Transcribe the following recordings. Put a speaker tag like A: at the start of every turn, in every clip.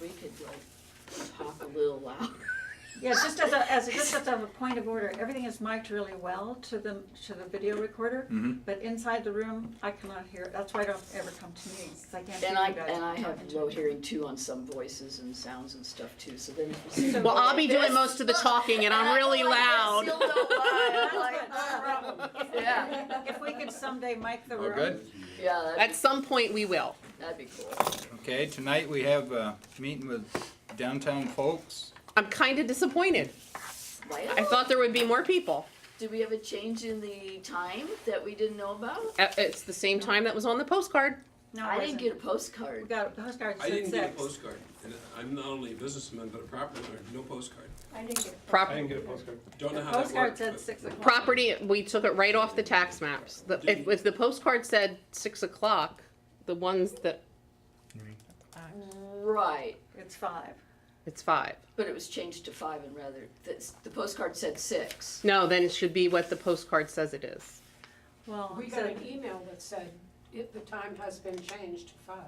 A: we could like talk a little louder.
B: Yeah, just as a, as, a- just as a point of order, everything is mic'd really well to the, to the video recorder,
C: Mm-hmm.
D: Mhm.
B: but inside the room, I cannot hear, it. that's why I don't ever come to meetings, 'cause I can't hear
A: And I,
B: you guys.
A: and I have
B: talking to
A: low
B: me.
A: hearing too on some voices and sounds and stuff too, so then if you see.
B: So-
E: Well, I'll be doing most of the talking and I'm really loud.
B: That's what- that's the problem.
E: uh,
A: Yeah,
B: If we could someday mic
C: Oh,
B: the
D: All
B: room.
D: good?
A: yeah,
E: At
A: that'd,
E: some point, we will.
A: that'd be cool.
D: Okay, tonight we have a meeting with downtown folks.
E: I'm kind of disappointed. I
A: Why,
E: thought there would be more people.
A: did we have a change in the time that we didn't know about?
E: Uh, It's the same time that was on the postcard.
B: No,
A: I didn't get a
B: We
A: postcard.
B: got a postcard
C: I
B: said
C: didn't get a
B: six.
C: postcard, and I'm not only a businessman, but a property owner, no postcard.
F: I didn't get.
E: Prop-
G: I didn't get a postcard.
C: Don't know how that
B: Postcard
C: worked.
B: said
C: but-
B: six o'clock.
E: Property, we took it right off the tax maps. The- If, if the postcard said six o'clock, the ones that,
A: Right,
B: It's five.
E: it's five.
A: but it was changed to five and rather, the, the postcard said six.
E: No, then it should be what the postcard says it is.
B: Well,
F: We
B: it
F: got
B: said-
F: an email that said, if the time has been changed to five.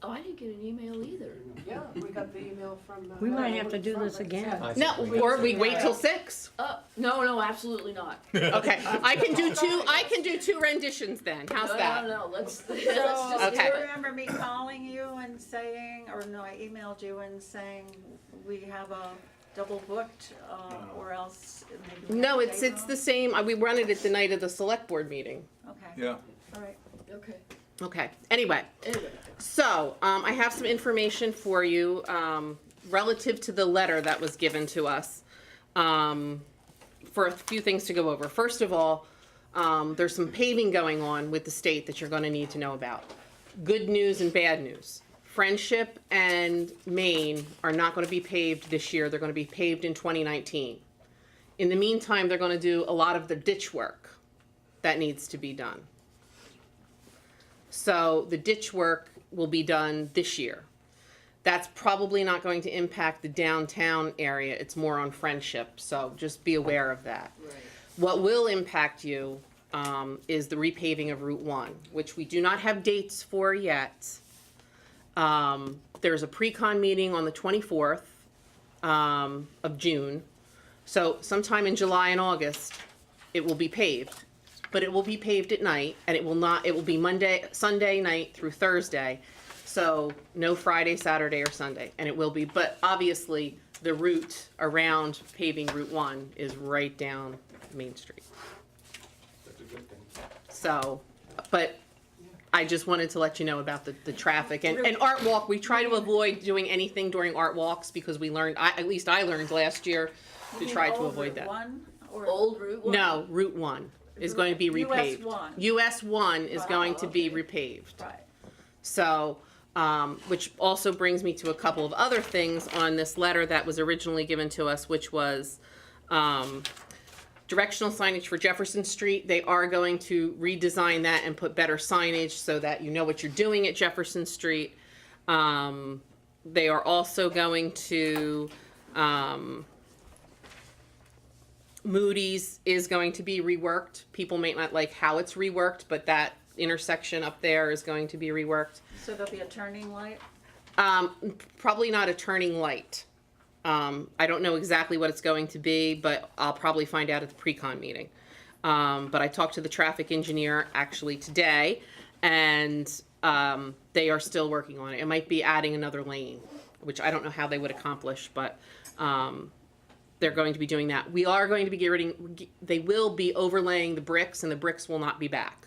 A: Oh, I didn't get an email either.
F: Yeah, we got the email from. uh,
H: We might have to do
F: from
H: this
F: it.
H: again.
E: No, or we wait till six.
A: Uh, no, no, absolutely not.
E: Okay, I can do two, I can do two renditions then. How's
A: No,
E: that?
A: No, no, let's, let's
B: So,
A: just.
B: do
E: Okay.
B: you remember me calling you and saying, or no, I emailed you and saying, we have a double booked, uh, or else maybe. we
E: No,
B: have a
E: it's,
B: day
E: it's
B: off?
E: the same. uh, We run it at the night of the select board meeting.
B: Okay,
D: Yeah.
B: all right.
A: Okay,
E: Okay, anyway.
A: anyway.
E: So, um, I have some information for you, um, relative to the letter that was given to us, um, for a few things to go over. First of all, um, there's some paving going on with the state that you're gonna need to know about. Good news and bad news. Friendship and Maine are not gonna be paved this year, they're gonna be paved in twenty nineteen. In the meantime, they're gonna do a lot of the ditch work that needs to be done. So the ditch work will be done this year. That's probably not going to impact the downtown area. It's more on Friendship, so just be aware of that.
A: Right.
E: What will impact you um, is the repaving of Route One, which we do not have dates for yet. Um, there's a pre-con meeting on the 24th um, of June, so sometime in July and August, it will be paved. But it will be paved at night, and it will not. It will be Monday, Sunday night through Thursday, so no Friday, Saturday, or Sunday, and it will be. But obviously, the route around paving Route One is right down Main Street.
C: That's a good thing.
E: So, but I just wanted to let you know about the, the traffic and, and art walk. We try to avoid doing anything during art walks because we learned, I, at least I learned last year to
B: You
E: try
B: mean
E: to
B: old
E: avoid
B: Route
E: that.
B: One or?
A: Old Route one?
E: No, Route One is going to be
B: US
E: repaved.
B: one.
E: US One is going to be
A: Wow,
E: repaved.
B: Right.
E: So, um, which also brings me to a couple of other things on this letter that was originally given to us, which was, um, directional signage for Jefferson Street. They are going to redesign that and put better signage so that you know what you're doing at Jefferson Street. Um, they are also going to, um, Moody's is going to be reworked. People may not like how it's reworked, but that intersection up there is going to be reworked.
B: So there'll be a turning light?
E: Um, probably not a turning light. Um, I don't know exactly what it's going to be, but I'll probably find out at the pre-con meeting. Um, but I talked to the traffic engineer actually today, and um, they are still working on it. It might be adding another lane, which I don't know how they would accomplish, but um, they're going to be doing that. We are going to be getting, they will be overlaying the bricks, and the bricks will not be back.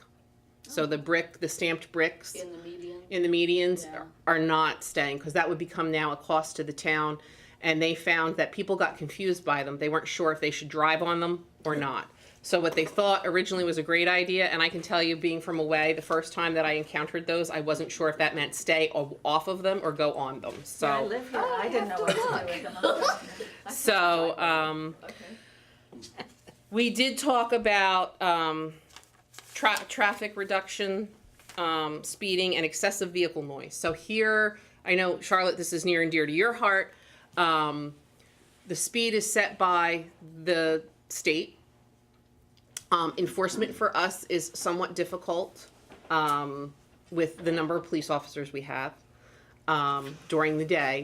E: So the brick, the stamped bricks
A: In the median?
E: in the medians
A: Yeah.
E: are not staying because that would become now a cost to the town. And they found that people got confused by them. They weren't sure if they should drive on them or not. So what they thought originally was a great idea, and I can tell you, being from away, the first time that I encountered those, I wasn't sure if that meant stay o- off of them or go on them.
B: Yeah, I
E: So, Oh,
B: live here, I didn't know
A: have
B: what
A: to
B: to do with them. either.
E: so um,
A: Okay.
E: we did talk about um, tra- traffic reduction, um, speeding, and excessive vehicle noise. So here, I know Charlotte, this is near and dear to your heart. Um, the speed is set by the state. Um, enforcement for us is somewhat difficult um, with the number of police officers we have um, during the day.